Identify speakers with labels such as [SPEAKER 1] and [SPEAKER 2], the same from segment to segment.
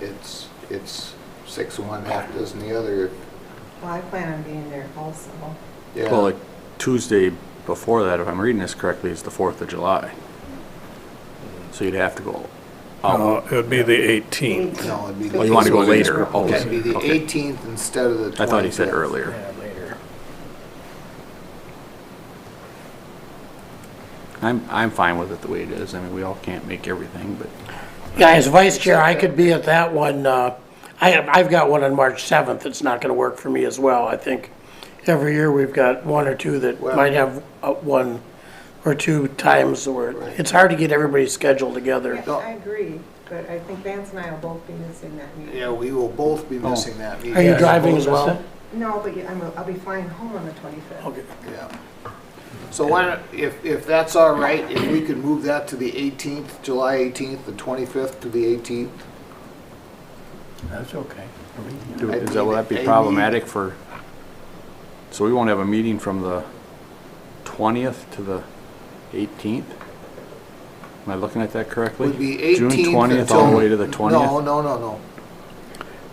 [SPEAKER 1] it's, it's six of one, half dozen the other.
[SPEAKER 2] Well, I plan on being there also.
[SPEAKER 1] Yeah.
[SPEAKER 3] Well, like Tuesday before that, if I'm reading this correctly, is the 4th of July. So you'd have to go
[SPEAKER 4] Uh,
[SPEAKER 1] Oh.
[SPEAKER 3] out.
[SPEAKER 4] It would be the 18th.
[SPEAKER 1] No, it'd be.
[SPEAKER 2] Oh, you wanna
[SPEAKER 3] go
[SPEAKER 1] it'd
[SPEAKER 3] later.
[SPEAKER 1] be- It'd be the
[SPEAKER 3] Okay.
[SPEAKER 1] eighteenth instead of the
[SPEAKER 3] I
[SPEAKER 1] twenty-fifth.
[SPEAKER 3] thought he said earlier.
[SPEAKER 4] Yeah, later.
[SPEAKER 3] I'm, I'm fine with it the way it is. I mean, we all can't make everything, but
[SPEAKER 5] Yeah, as vice chair, I could be at that one. uh, I have, I've got one on March 7th that's not going to work for me as well. I think every year we've got one or two that
[SPEAKER 1] Well-
[SPEAKER 5] might have uh, one or two times where
[SPEAKER 1] Right.
[SPEAKER 5] it's hard to get everybody's schedule together.
[SPEAKER 2] Yeah, I agree, but I think Vance and I will both be missing that meeting.
[SPEAKER 1] Yeah, we will both
[SPEAKER 3] Oh.
[SPEAKER 1] be missing that meeting.
[SPEAKER 5] Are you
[SPEAKER 1] Yeah.
[SPEAKER 5] driving as well?
[SPEAKER 2] No, but yeah, I'm, I'll be flying home on the 25th.
[SPEAKER 5] Okay.
[SPEAKER 1] Yeah. So why don't, if, if that's all right, if we could move that to the 18th, July 18th, the 25th to the 18th?
[SPEAKER 5] That's okay.
[SPEAKER 3] do-
[SPEAKER 1] I
[SPEAKER 3] is that, will that
[SPEAKER 1] mean, I
[SPEAKER 3] be
[SPEAKER 1] mean-
[SPEAKER 3] problematic for, so we won't have a meeting from the 20th to the 18th? Am I looking at that correctly?
[SPEAKER 1] Would be 18th until...
[SPEAKER 3] June 20th all the way to the 20th?
[SPEAKER 1] No, no, no, no.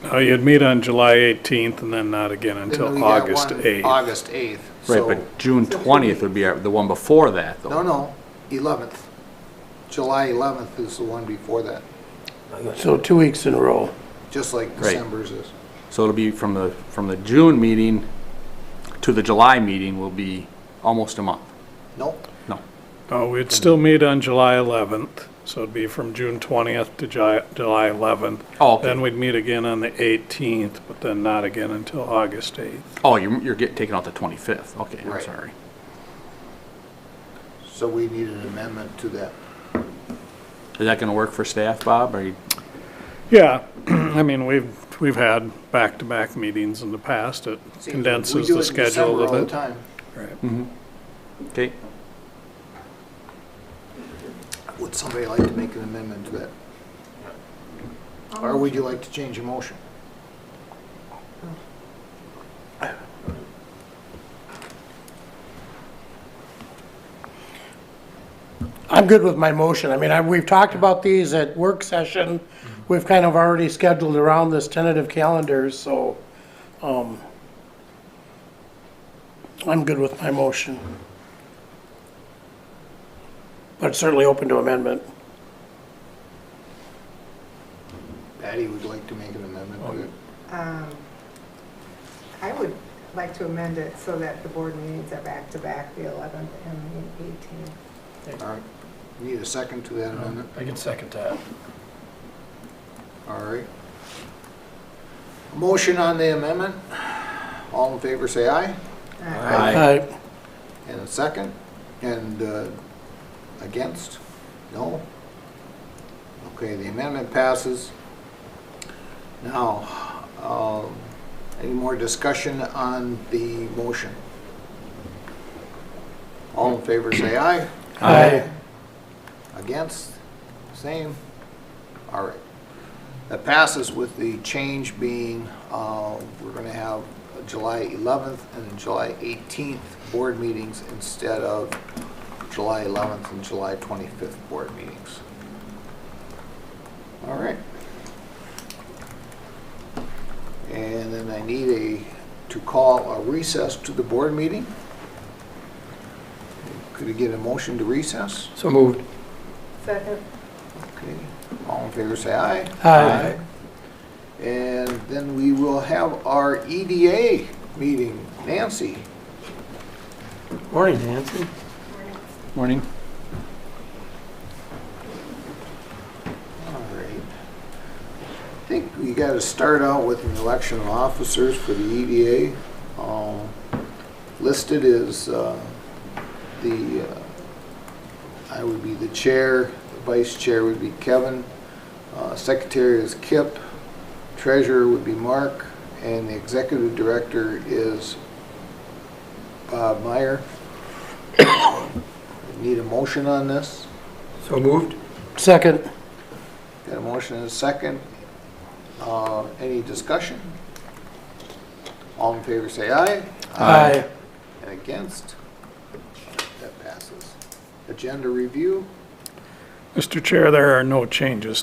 [SPEAKER 4] No, Uh, you'd meet on July 18th and then not again
[SPEAKER 1] Then we
[SPEAKER 4] until
[SPEAKER 1] got one
[SPEAKER 4] August 8th.
[SPEAKER 1] August 8th.
[SPEAKER 3] Right,
[SPEAKER 1] So-
[SPEAKER 3] but June
[SPEAKER 2] So two
[SPEAKER 3] 20th would be our- the one before that, though.
[SPEAKER 1] No, no, 11th. July 11th is the one before that,
[SPEAKER 5] So two weeks in a row.
[SPEAKER 1] just like
[SPEAKER 3] Right.
[SPEAKER 1] December's is.
[SPEAKER 3] So it'll be from the, from the June meeting to the July meeting will be almost a month.
[SPEAKER 1] Nope,
[SPEAKER 3] No,
[SPEAKER 4] Oh, we'd still meet on July 11th, so it'd be from June 20th to Ju- July 11th.
[SPEAKER 3] Oh, okay.
[SPEAKER 4] Then we'd meet again on the 18th, but then not again until August 8th.
[SPEAKER 3] oh, you're, you're getting, taking out the 25th, okay, I'm
[SPEAKER 1] Right.
[SPEAKER 3] sorry.
[SPEAKER 1] so we need an amendment to that.
[SPEAKER 3] Is that gonna work for staff, Bob, or you,
[SPEAKER 4] Yeah, I mean, we've, we've had back-to-back meetings in the past. It
[SPEAKER 1] See,
[SPEAKER 4] condenses the schedule a
[SPEAKER 1] We do it in December
[SPEAKER 4] little bit.
[SPEAKER 1] all the time.
[SPEAKER 4] Right.
[SPEAKER 3] okay?
[SPEAKER 1] Would somebody like to make an amendment to that? Or would you like to change your motion?
[SPEAKER 5] I'm good with my motion. I mean, I, we've talked about these at work session. We've kind of already scheduled around this tentative calendar, so, um, I'm good with my motion. But certainly open to amendment.
[SPEAKER 1] Patty would like to make an amendment to it.
[SPEAKER 6] Oh,
[SPEAKER 2] Um, I would like to amend it so that the board meetings are back-to-back, the 11th and the 18th.
[SPEAKER 1] All right, need a second to that amendment?
[SPEAKER 6] I can second that.
[SPEAKER 1] All right. Motion on the amendment. All in favor, say aye.
[SPEAKER 2] Uh,
[SPEAKER 3] Aye.
[SPEAKER 5] Aye.
[SPEAKER 1] And a second, and uh, against? No? Okay, the amendment passes. Now, um, any more discussion on the motion? All in favor, say aye.
[SPEAKER 5] Aye.
[SPEAKER 1] Against? Same? All right. That passes with the change being, uh, we're going to have July 11th and July 18th board meetings instead of July 11th and July 25th board meetings. All right. And then I need a, to call a recess to the board meeting. Could we get a motion to recess?
[SPEAKER 6] So moved.
[SPEAKER 2] Second,
[SPEAKER 1] Okay, all in favor, say aye.
[SPEAKER 5] Aye.
[SPEAKER 1] And then we will have our EDA meeting. Nancy,
[SPEAKER 6] Morning, Nancy.
[SPEAKER 3] Morning.
[SPEAKER 1] all right. I think we got to start out with an election of officers for the EDA. Um, Listed is uh, the, uh, I would be the chair, the vice chair would be Kevin, uh, secretary is Kip, treasurer would be Mark, and the executive director is Bob Meyer. Need a motion on this?
[SPEAKER 6] So moved.
[SPEAKER 5] Second.
[SPEAKER 1] Got a motion and a second. Uh, Any discussion? All in favor, say aye.
[SPEAKER 5] Aye.
[SPEAKER 1] And against? That passes. Agenda review?
[SPEAKER 4] Mr. Chair, there are no changes